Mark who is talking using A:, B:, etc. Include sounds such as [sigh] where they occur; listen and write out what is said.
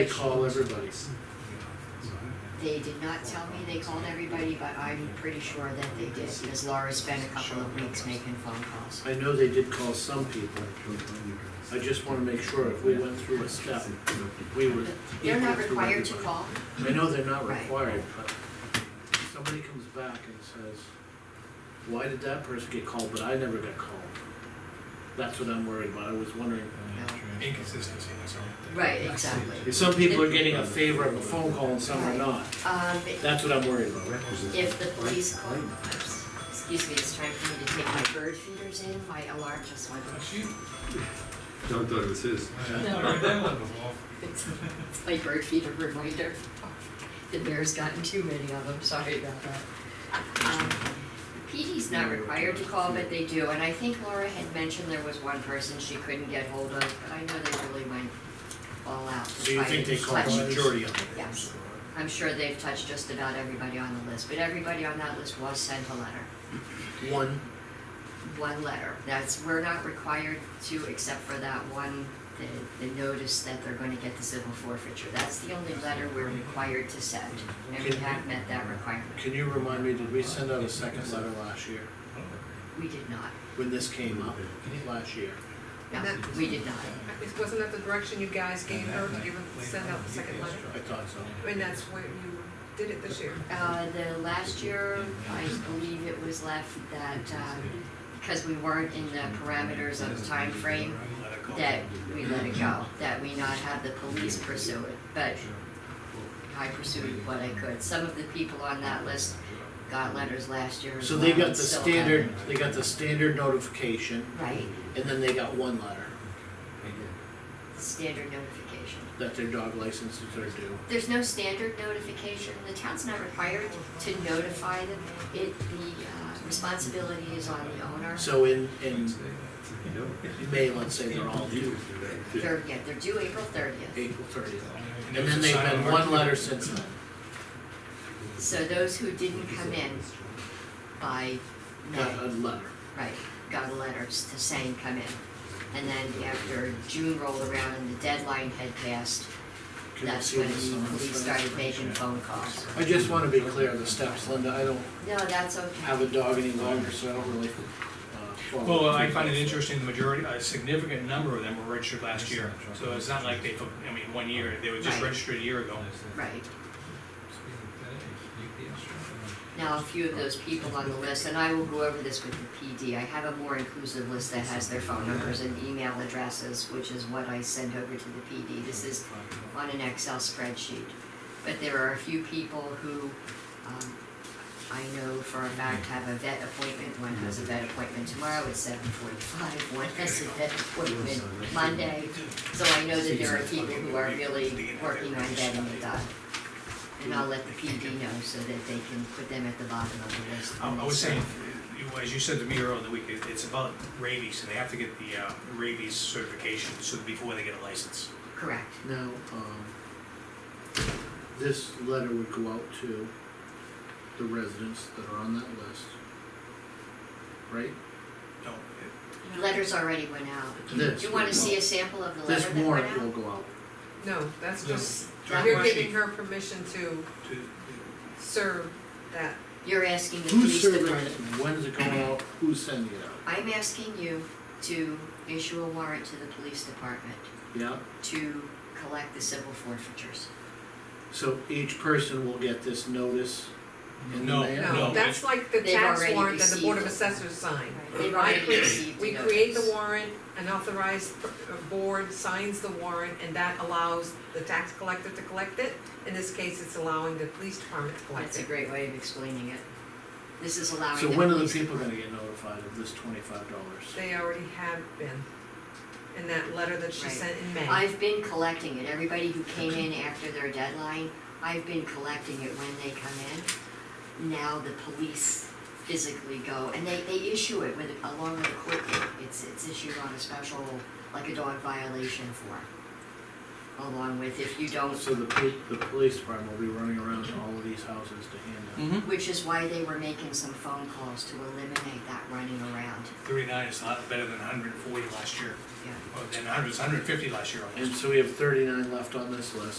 A: They call everybody.
B: They did not tell me they called everybody, but I'm pretty sure that they did, because Laura spent a couple of weeks making phone calls.
A: I know they did call some people. I just wanna make sure if we went through a step, we were.
B: They're not required to call,
A: I know they're not
B: Right.
A: required, but somebody comes back and says, why did that person get called, but I never got called? That's what I'm worried about. I was wondering.
C: Inconsistency, that's all.
B: right, exactly.
A: Some people are getting a favor of a phone call and some are not.
B: Um,
A: That's what I'm worried about.
B: if the police call, excuse me, it's time for me to take my bird feeders in, my alarm just went off.
D: John thought it was his.
C: I read that one before.
B: It's [laughs] it's my bird feeder reminder. The bear's gotten too many of them, sorry about that. Um, PD's not required to call, but they do, and I think Laura had mentioned there was one person she couldn't get hold of, but I know they really went all out. to
A: So you
B: try
A: think
B: to
A: they called the
B: touch-
A: majority of them?
B: Yes, I'm sure they've touched just about everybody on the list, but everybody on that list was sent a letter,
A: One,
B: one letter. That's, we're not required to, except for that one, the, the notice that they're gonna get the civil forfeiture. That's the only letter we're required to send, and we have met that requirement.
A: can you remind me, did we send out a second letter last year?
B: We did not,
A: when this came up last year.
B: no, we did not.
E: Is- Wasn't that the direction you guys gave her to give, a- send out the second letter?
A: I thought so.
E: And that's where you did it this year?
B: Uh, the last year, I believe it was left that, uh, because we weren't in the parameters of time frame. that we let it go, that we not have the police pursue it, but I pursued what I could. Some of the people on that list got letters last year as
A: So they
B: well,
A: got the
B: and still
A: standard, they got the standard notification,
B: haven't. Right,
A: and then they got one letter
B: standard notification.
A: that their dog licenses are due.
B: There's no standard notification, the town's not required to notify them. It, the uh, responsibility is on the owner.
A: So in, in May, let's say they're all due,
B: They're, yeah, they're due April thirtieth.
A: April thirtieth. And then they've been one letter since then.
B: So those who didn't come in by May.
A: Got a letter.
B: Right, got a letter to saying come in. And then after June rolled around and the deadline had passed,
A: Can you
B: that's
A: see
B: when
A: this on
B: the
A: the
B: police
A: side?
B: started making phone calls.
A: I just wanna be clear of the steps, Linda, I don't
B: No, that's
A: have
B: okay.
A: a dog any longer, so I don't really, uh. follow
C: Well, I find it interesting, the majority, a significant number of them were registered last year, so it's not like they, took- I mean, one year, they were just
B: Right.
C: registered a year ago.
B: Right. Now, a few of those people on the list, and I will go over this with the PD, I have a more inclusive list that has their phone numbers and email addresses, which is what I send over to the PD. This is on an Excel spreadsheet. But there are a few people who, um, I know for a fact have a vet appointment, one has a vet appointment tomorrow at seven forty-five, one has a vet appointment Monday. So I know that there are people who are really working on getting it done. And I'll let the PD know so that they can put them at the bottom of the list.
C: Um, Oh, I I was saying, you- as you said to me earlier in the week, it- it's about rabies, and they have to get the uh, rabies certification so before they get a license.
B: Correct,
A: Now, um, this letter would go out to the residents that are on that list, right?
C: No,
B: The letters already went out.
A: This
B: Do you wanna
A: would
B: see
A: go-
B: a sample of the
A: This
B: letter that went
A: warrant
B: out?
A: will go out.
E: No, that's
C: No.
E: just,
B: That
E: you're
B: one.
E: giving her permission to
C: it- to-
E: serve that.
B: You're asking the
A: Who's
B: police to
A: serving
B: warn
A: it, when's it going out, who's sending it out?
B: I'm asking you to issue a warrant to the police department
A: Yeah,
B: to collect the civil forfeitures.
A: so each person will get this notice in the
C: No,
A: mail?
E: No,
C: no,
E: that's like the
B: They've
E: tax
B: already
E: warrant that the Board of
B: received it.
E: Assessors signed.
B: They've
E: I
B: already
E: create-
B: received the
E: We create the
B: notice.
E: warrant, an authorized per- uh, board signs the warrant, and that allows the tax collector to collect it. In this case, it's allowing the police department to collect
B: That's a
E: it.
B: great way of explaining it. This is allowing the
A: So when are the
B: police-
A: people gonna get notified of this twenty-five dollars?
E: They already have been, in that letter that she
B: Right.
E: sent in May.
B: I've been collecting it, everybody who came in after their deadline, I've been collecting it when they come in. Now the police physically go, and they, they issue it with, along with a court date, it's, it's issued on a special, like a dog violation form. Along with, if you don't
A: So the pol- the police department will be running around to all of these houses to hand out.
B: Which is why they were making some phone calls to eliminate that running around.
C: Thirty-nine is a lot better than hundred and forty last year,
B: Yeah.
C: or than hundred, hundred and fifty last year almost.
A: And so we have thirty-nine left on this list.